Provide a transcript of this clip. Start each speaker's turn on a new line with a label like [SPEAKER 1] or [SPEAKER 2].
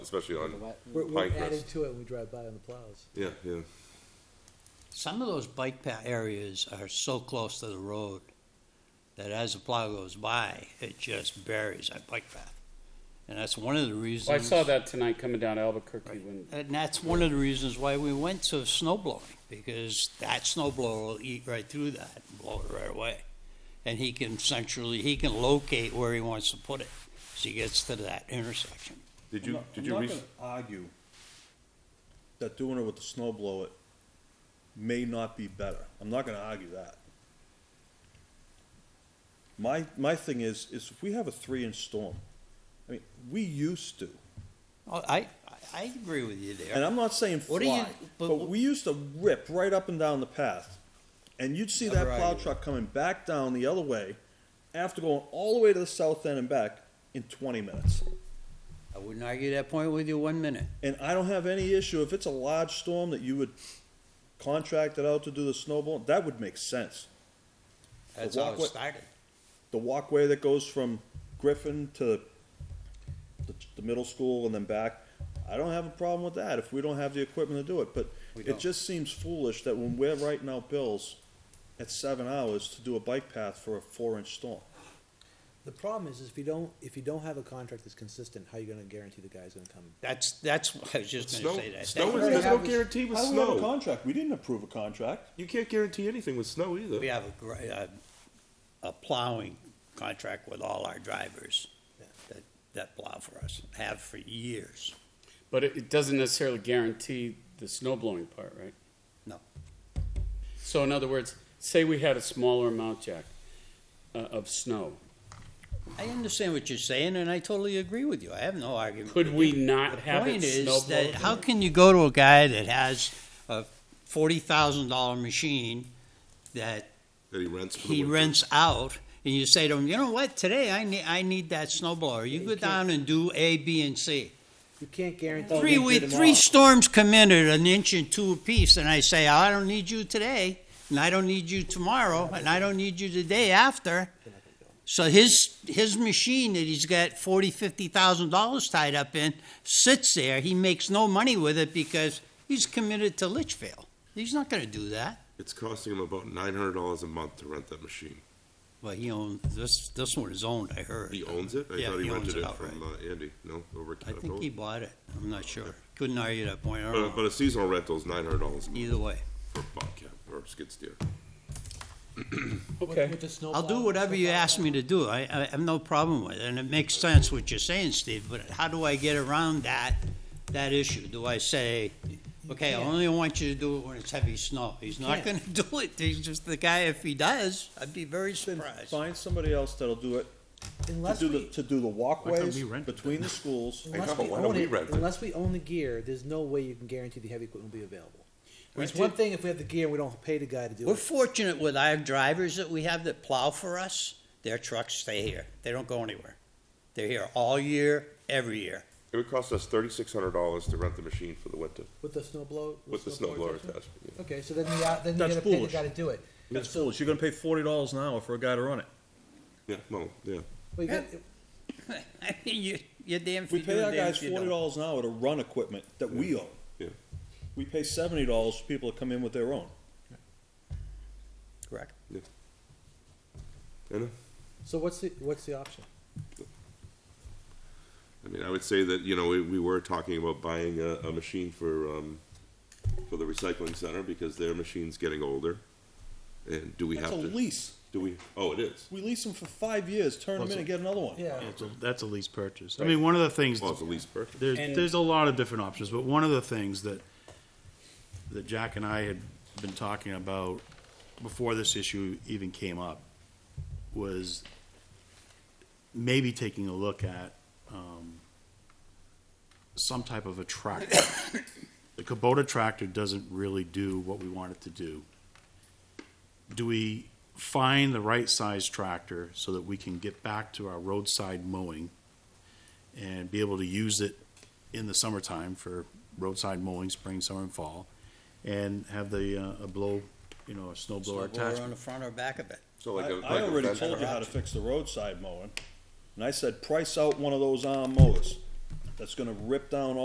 [SPEAKER 1] especially on,
[SPEAKER 2] We're, we're
[SPEAKER 1] Pinecrest.
[SPEAKER 2] adding to it when we drive by on the plows.
[SPEAKER 1] yeah, yeah.
[SPEAKER 3] Some of those bike path areas are so close to the road that as the plow goes by, it just buries that bike path. And that's one of the reasons.
[SPEAKER 4] Well, I saw that tonight coming down Albuquerque when,
[SPEAKER 3] And that's one of the reasons why we went to snow blowing, because that snow blower will eat right through that and blow it right away. And he can centrally, he can locate where he wants to put it as he gets to that intersection.
[SPEAKER 1] Did
[SPEAKER 5] I'm
[SPEAKER 1] you,
[SPEAKER 5] not-
[SPEAKER 1] did you
[SPEAKER 5] I'm
[SPEAKER 1] reach,
[SPEAKER 5] not gonna argue that doing it with the snow blow it may not be better. I'm not gonna argue that. My, my thing is, is if we have a three-inch storm, I mean, we used to,
[SPEAKER 3] Oh, I, I agree with you
[SPEAKER 5] and
[SPEAKER 3] there.
[SPEAKER 5] I'm not saying
[SPEAKER 3] What do you-
[SPEAKER 5] fly,
[SPEAKER 3] but-
[SPEAKER 5] but we used to rip right up and down the path. And you'd see that plow truck coming back down the other way after going all the way to the south end and back in twenty minutes.
[SPEAKER 3] I wouldn't argue that point with you one minute.
[SPEAKER 5] And I don't have any issue, if it's a large storm that you would contract it out to do the snowball, that would make sense.
[SPEAKER 3] That's how it
[SPEAKER 5] walkway-
[SPEAKER 3] started.
[SPEAKER 5] The walkway that goes from Griffin to the, the middle school and then back, I don't have a problem with that if we don't have the equipment to do it, but
[SPEAKER 3] We
[SPEAKER 5] it
[SPEAKER 3] don't.
[SPEAKER 5] just seems foolish that when we're writing out bills at seven hours to do a bike path for a four-inch storm.
[SPEAKER 2] The problem is, is if you don't, if you don't have a contract that's consistent, how are you gonna guarantee the guy's gonna come?
[SPEAKER 3] That's, that's, what I was just gonna
[SPEAKER 1] snow,
[SPEAKER 3] say that.
[SPEAKER 1] snow is,
[SPEAKER 3] That-
[SPEAKER 1] there's
[SPEAKER 5] How
[SPEAKER 1] no
[SPEAKER 5] do we-
[SPEAKER 1] guarantee with
[SPEAKER 5] How do we have a
[SPEAKER 1] snow.
[SPEAKER 5] contract? We didn't approve a contract.
[SPEAKER 1] You can't guarantee anything with snow
[SPEAKER 3] We
[SPEAKER 1] either.
[SPEAKER 3] have a, gr- a, a plowing contract with all our drivers that, that plow for us, have for years.
[SPEAKER 4] but it, it doesn't necessarily guarantee the snow blowing part, right?
[SPEAKER 3] No.
[SPEAKER 4] So in other words, say we had a smaller amount, Jack, uh, of snow.
[SPEAKER 3] I understand what you're saying, and I totally agree with you. I have no argument.
[SPEAKER 4] Could
[SPEAKER 3] with
[SPEAKER 4] we
[SPEAKER 3] you.
[SPEAKER 4] not
[SPEAKER 3] The
[SPEAKER 4] have it
[SPEAKER 3] point is
[SPEAKER 4] snow
[SPEAKER 3] that how
[SPEAKER 4] blowing?
[SPEAKER 3] can you go to a guy that has a forty thousand dollar machine that
[SPEAKER 1] That he rents for the
[SPEAKER 3] he
[SPEAKER 1] winter.
[SPEAKER 3] rents out, and you say to him, you know what, today I need I need that snow blower. You
[SPEAKER 2] Yeah,
[SPEAKER 3] go
[SPEAKER 2] you can't-
[SPEAKER 3] down and do A, B, and C.
[SPEAKER 2] You can't guarantee.
[SPEAKER 3] Three we, three storms come in at an inch and two apiece, and I say "Oh, I don't need you today, and I don't need you tomorrow, and I don't need you the day after. So his his machine that he's got forty fifty thousand dollars tied up in sits there. He makes no money with it because he's committed to Litchfield. He's not going to do that.
[SPEAKER 1] It's costing him about nine hundred dollars a month to rent that machine.
[SPEAKER 3] Well, he owns this. This one is owned. I heard.
[SPEAKER 1] He owns it? I
[SPEAKER 3] Yeah,
[SPEAKER 1] thought he
[SPEAKER 3] he owns
[SPEAKER 1] rented
[SPEAKER 3] it
[SPEAKER 1] it
[SPEAKER 3] outright.
[SPEAKER 1] from uh, Andy, no, over at
[SPEAKER 3] I think he
[SPEAKER 1] Caterpillar.
[SPEAKER 3] bought it. I'm not sure. Couldn't argue that point. I don't
[SPEAKER 1] But,
[SPEAKER 3] know.
[SPEAKER 1] but a seasonal rental is nine hundred dollars a month
[SPEAKER 3] Either way,
[SPEAKER 1] for Bobcat or skid steer.
[SPEAKER 4] Okay,
[SPEAKER 3] I'll do whatever you ask me to do. I, I have no problem with it, and it makes sense what you're saying, Steve. But how do I get around that that issue? Do I say, okay, I
[SPEAKER 2] can't.
[SPEAKER 3] only want you to do it when it's heavy snow? He's not going to do it. He's just the guy. If he does, I'd be very
[SPEAKER 5] Then
[SPEAKER 3] surprised.
[SPEAKER 5] find somebody else that'll do it to
[SPEAKER 2] Unless
[SPEAKER 5] do the,
[SPEAKER 2] we,
[SPEAKER 5] to do the walkways
[SPEAKER 6] we rent it
[SPEAKER 5] between the schools.
[SPEAKER 2] unless
[SPEAKER 1] know,
[SPEAKER 2] we
[SPEAKER 1] but why don't
[SPEAKER 2] own
[SPEAKER 1] we
[SPEAKER 2] it,
[SPEAKER 1] rent it?
[SPEAKER 2] unless we own the gear, there's no way you can guarantee the heavy equipment will be available.
[SPEAKER 4] We
[SPEAKER 2] It's one
[SPEAKER 4] did-
[SPEAKER 2] thing if we have the gear and we don't pay the guy to do
[SPEAKER 3] We're
[SPEAKER 2] it.
[SPEAKER 3] fortunate with our drivers that we have that plow for us. Their trucks stay here. They don't go anywhere. They're here all year, every year.
[SPEAKER 1] It would cost us thirty-six hundred dollars to rent the machine for the winter,
[SPEAKER 2] With the snow blow.
[SPEAKER 1] with the snow blower
[SPEAKER 2] blowers.
[SPEAKER 1] attachment. yeah.
[SPEAKER 2] Okay, so then you, uh, then you
[SPEAKER 5] That's
[SPEAKER 2] gotta pay the
[SPEAKER 5] foolish.
[SPEAKER 2] guy to do it.
[SPEAKER 5] That's foolish. You're gonna pay forty dollars an hour for a guy to run it.
[SPEAKER 1] Yeah, well, yeah.
[SPEAKER 2] Well, you
[SPEAKER 3] Yeah.
[SPEAKER 2] got-
[SPEAKER 3] I mean, you, you're damn if
[SPEAKER 5] We
[SPEAKER 3] you do,
[SPEAKER 5] pay our
[SPEAKER 3] damn
[SPEAKER 5] guys
[SPEAKER 3] if you don't.
[SPEAKER 5] forty dollars an hour to run equipment that we own.
[SPEAKER 1] Yeah.
[SPEAKER 5] We pay seventy dollars for people to come in with their own.
[SPEAKER 3] Correct.
[SPEAKER 1] I know.
[SPEAKER 2] So what's the, what's the option?
[SPEAKER 1] I mean, I would say that, you know, we, we were talking about buying a, a machine for, um, for the recycling center because their machine's getting older. And do we have
[SPEAKER 5] That's a
[SPEAKER 1] to,
[SPEAKER 5] lease.
[SPEAKER 1] do we, oh, it is.
[SPEAKER 5] We lease them for five years, turn them in and get another one.
[SPEAKER 2] Yeah.
[SPEAKER 6] That's a, that's a lease purchase. I mean, one of the things,
[SPEAKER 1] Well, it's a lease purchase.
[SPEAKER 6] there's,
[SPEAKER 4] And-
[SPEAKER 6] there's a lot of different options, but one of the things that, that Jack and I had been talking about before this issue even came up was maybe taking a look at, um, some type of a tractor. The Kubota tractor doesn't really do what we want it to do. Do we find the right size tractor so that we can get back to our roadside mowing and be able to use it in the summertime for roadside mowing, spring, summer, and fall, and have the, uh, a blow, you know, a snow blower
[SPEAKER 3] Blower on
[SPEAKER 6] attachment?
[SPEAKER 3] the front or back of it.
[SPEAKER 1] So
[SPEAKER 5] I,
[SPEAKER 1] like a, like
[SPEAKER 5] I
[SPEAKER 1] a
[SPEAKER 5] already
[SPEAKER 1] Fender-
[SPEAKER 5] told you how to fix the roadside mowing, and I said, price out one of those arm mowers. that's gonna rip down all